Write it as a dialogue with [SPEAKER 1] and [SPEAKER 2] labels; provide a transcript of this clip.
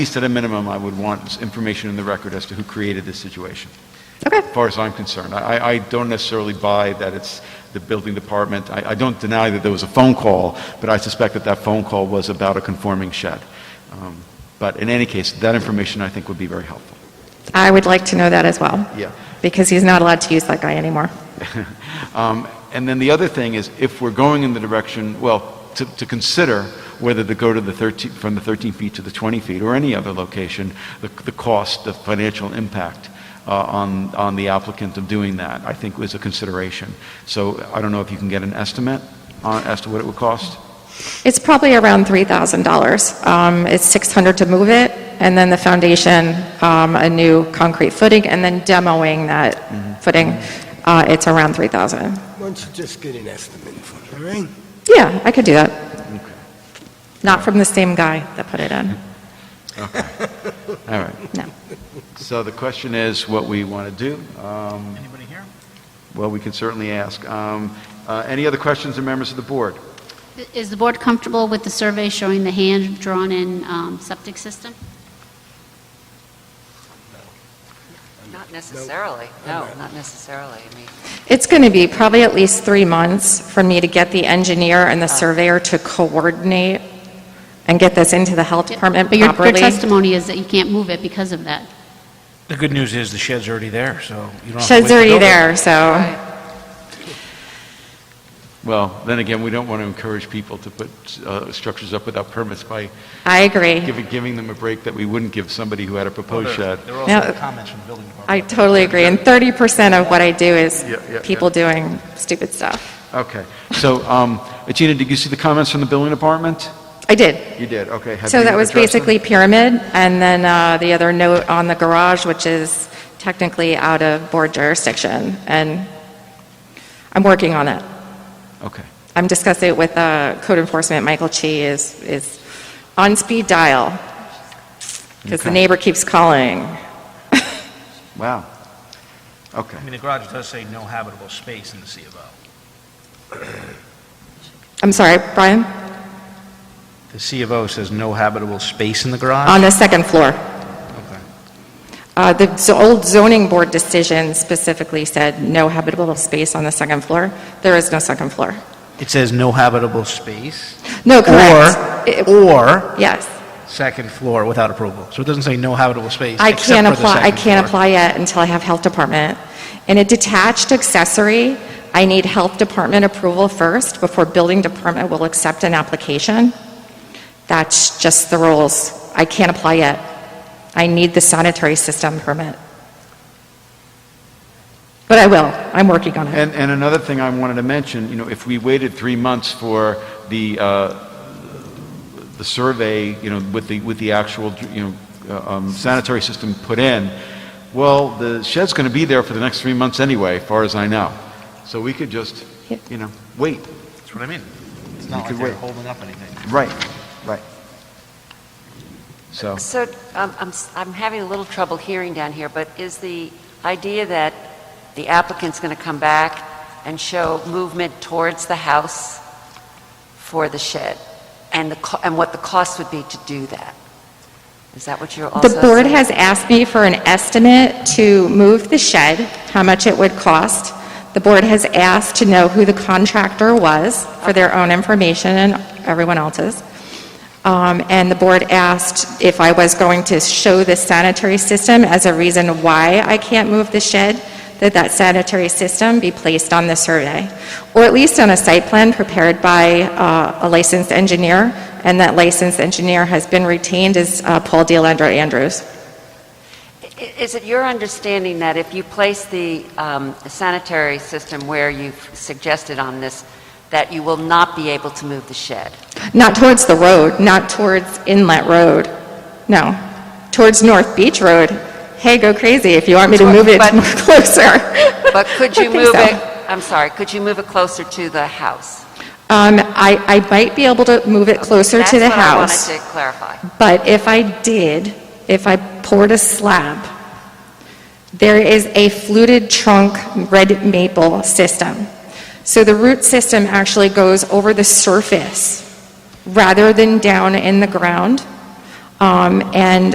[SPEAKER 1] least at a minimum, I would want information in the record as to who created this situation.
[SPEAKER 2] Okay.
[SPEAKER 1] As far as I'm concerned, I, I don't necessarily buy that it's the building department. I, I don't deny that there was a phone call, but I suspect that that phone call was about a conforming shed. Um, But in any case, that information, I think, would be very helpful.
[SPEAKER 2] I would like to know that as well.
[SPEAKER 1] Yeah.
[SPEAKER 2] Because he's not allowed to use that guy anymore.
[SPEAKER 1] Um, And then the other thing is, if we're going in the direction, well, to, to consider whether to go to the 13, from the 13 feet to the 20 feet or any other location, the, the cost, the financial impact uh, on, on the applicant of doing that, I think was a consideration. So I don't know if you can get an estimate on, as to what it would cost?
[SPEAKER 2] It's probably around $3,000. Um, It's 600 to move it, and then the foundation, um, a new concrete footing, and then demoing that footing, uh, it's around 3,000.
[SPEAKER 3] Why don't you just get an estimate for it, all right?
[SPEAKER 2] Yeah, I could do that. Not from the same guy that put it in,
[SPEAKER 1] All right.
[SPEAKER 2] no.
[SPEAKER 1] So the question is what we want to do. Um,
[SPEAKER 4] Anybody here?
[SPEAKER 1] Well, we can certainly ask. Um, uh, Any other questions or members of the board?
[SPEAKER 5] Is the board comfortable with the survey showing the hand-drawn-in um, septic system?
[SPEAKER 6] Not necessarily, no, not necessarily. I mean,
[SPEAKER 2] It's going to be probably at least three months for me to get the engineer and the surveyor to coordinate and get this into the health department
[SPEAKER 5] But your-
[SPEAKER 2] properly.
[SPEAKER 5] your testimony is that you can't move it because of that.
[SPEAKER 4] The good news is the shed's already there, so you don't have to wait
[SPEAKER 2] Shed's
[SPEAKER 4] to
[SPEAKER 2] already
[SPEAKER 4] build it.
[SPEAKER 2] there, so.
[SPEAKER 1] Well, then again, we don't want to encourage people to put uh, structures up without permits by
[SPEAKER 2] I agree.
[SPEAKER 1] giving, giving them a break that we wouldn't give somebody who had a
[SPEAKER 4] Well,
[SPEAKER 1] proposed
[SPEAKER 4] there-
[SPEAKER 1] shed.
[SPEAKER 4] There were
[SPEAKER 2] Now-
[SPEAKER 4] also comments from the building department.
[SPEAKER 2] I totally agree. And 30% of what I do is
[SPEAKER 1] Yeah, yeah,
[SPEAKER 2] people doing stupid stuff.
[SPEAKER 1] Okay, so, um, Gina, did you see the comments from the building department?
[SPEAKER 2] I did.
[SPEAKER 1] You did, okay. Have
[SPEAKER 2] So
[SPEAKER 1] you
[SPEAKER 2] that was
[SPEAKER 1] addressed them?
[SPEAKER 2] basically pyramid, and then uh, the other note on the garage, which is technically out of board jurisdiction, and I'm working on it.
[SPEAKER 1] Okay,
[SPEAKER 2] I'm discussing it with uh, code enforcement, Michael Chi is, is on speed dial, because the
[SPEAKER 1] Okay.
[SPEAKER 2] neighbor keeps calling.
[SPEAKER 1] wow. Okay,
[SPEAKER 4] I mean, the garage does say no habitable space in the C of O.
[SPEAKER 2] I'm sorry, Brian?
[SPEAKER 4] The C of O says no habitable space in the garage?
[SPEAKER 2] On the second floor.
[SPEAKER 4] Okay.
[SPEAKER 2] Uh, The z- old zoning board decision specifically said no habitable space on the second floor. There is no second floor.
[SPEAKER 4] It says no habitable space
[SPEAKER 2] No,
[SPEAKER 4] Or-
[SPEAKER 2] correct. It-
[SPEAKER 4] or
[SPEAKER 2] Yes.
[SPEAKER 4] second floor without approval. So it doesn't say no habitable space
[SPEAKER 2] I
[SPEAKER 4] except
[SPEAKER 2] can't
[SPEAKER 4] for the
[SPEAKER 2] apply, I
[SPEAKER 4] second
[SPEAKER 2] can't
[SPEAKER 4] floor.
[SPEAKER 2] apply yet until I have health department. In a detached accessory, I need health department approval first before building department will accept an application. That's just the rules. I can't apply yet. I need the sanitary system permit. But I will. I'm working on it.
[SPEAKER 1] and, and another thing I wanted to mention, you know, if we waited three months for the, uh, the survey, you know, with the, with the actual, you know, uh, um, sanitary system put in, well, the shed's going to be there for the next three months anyway, far as I know. So we could just,
[SPEAKER 2] Yeah.
[SPEAKER 1] you know, wait.
[SPEAKER 4] That's what I mean. It's
[SPEAKER 1] You
[SPEAKER 4] not like
[SPEAKER 1] could
[SPEAKER 4] they're
[SPEAKER 1] wait.
[SPEAKER 4] holding up anything.
[SPEAKER 1] Right, right. So,
[SPEAKER 6] So um, I'm s- I'm having a little trouble hearing down here, but is the idea that the applicant's going to come back and show movement towards the house for the shed, and the, co- and what the cost would be to do that? Is that what you're also
[SPEAKER 2] The
[SPEAKER 6] saying?
[SPEAKER 2] board has asked me for an estimate to move the shed, how much it would cost. The board has asked to know who the contractor was for their own information and everyone else's. Um, And the board asked if I was going to show the sanitary system as a reason why I can't move the shed, that that sanitary system be placed on the survey, or at least on a site plan prepared by uh, a licensed engineer, and that licensed engineer has been retained as uh, Paul DeLandro Andrews.
[SPEAKER 6] I- Is it your understanding that if you place the um, sanitary system where you've suggested on this, that you will not be able to move the shed?
[SPEAKER 2] Not towards the road, not towards Inlet Road, no, towards North Beach Road. Hey, go crazy if you want me to move it
[SPEAKER 6] But-
[SPEAKER 2] closer.
[SPEAKER 6] But could
[SPEAKER 2] I
[SPEAKER 6] you
[SPEAKER 2] think
[SPEAKER 6] move
[SPEAKER 2] so.
[SPEAKER 6] it, I'm sorry, could you move it closer to the house?
[SPEAKER 2] Um, I, I might be able to move it closer to the
[SPEAKER 6] That's
[SPEAKER 2] house,
[SPEAKER 6] what I wanted to clarify.
[SPEAKER 2] but if I did, if I poured a slab, there is a fluted trunk red maple system. So the root system actually goes over the surface rather than down in the ground. Um, and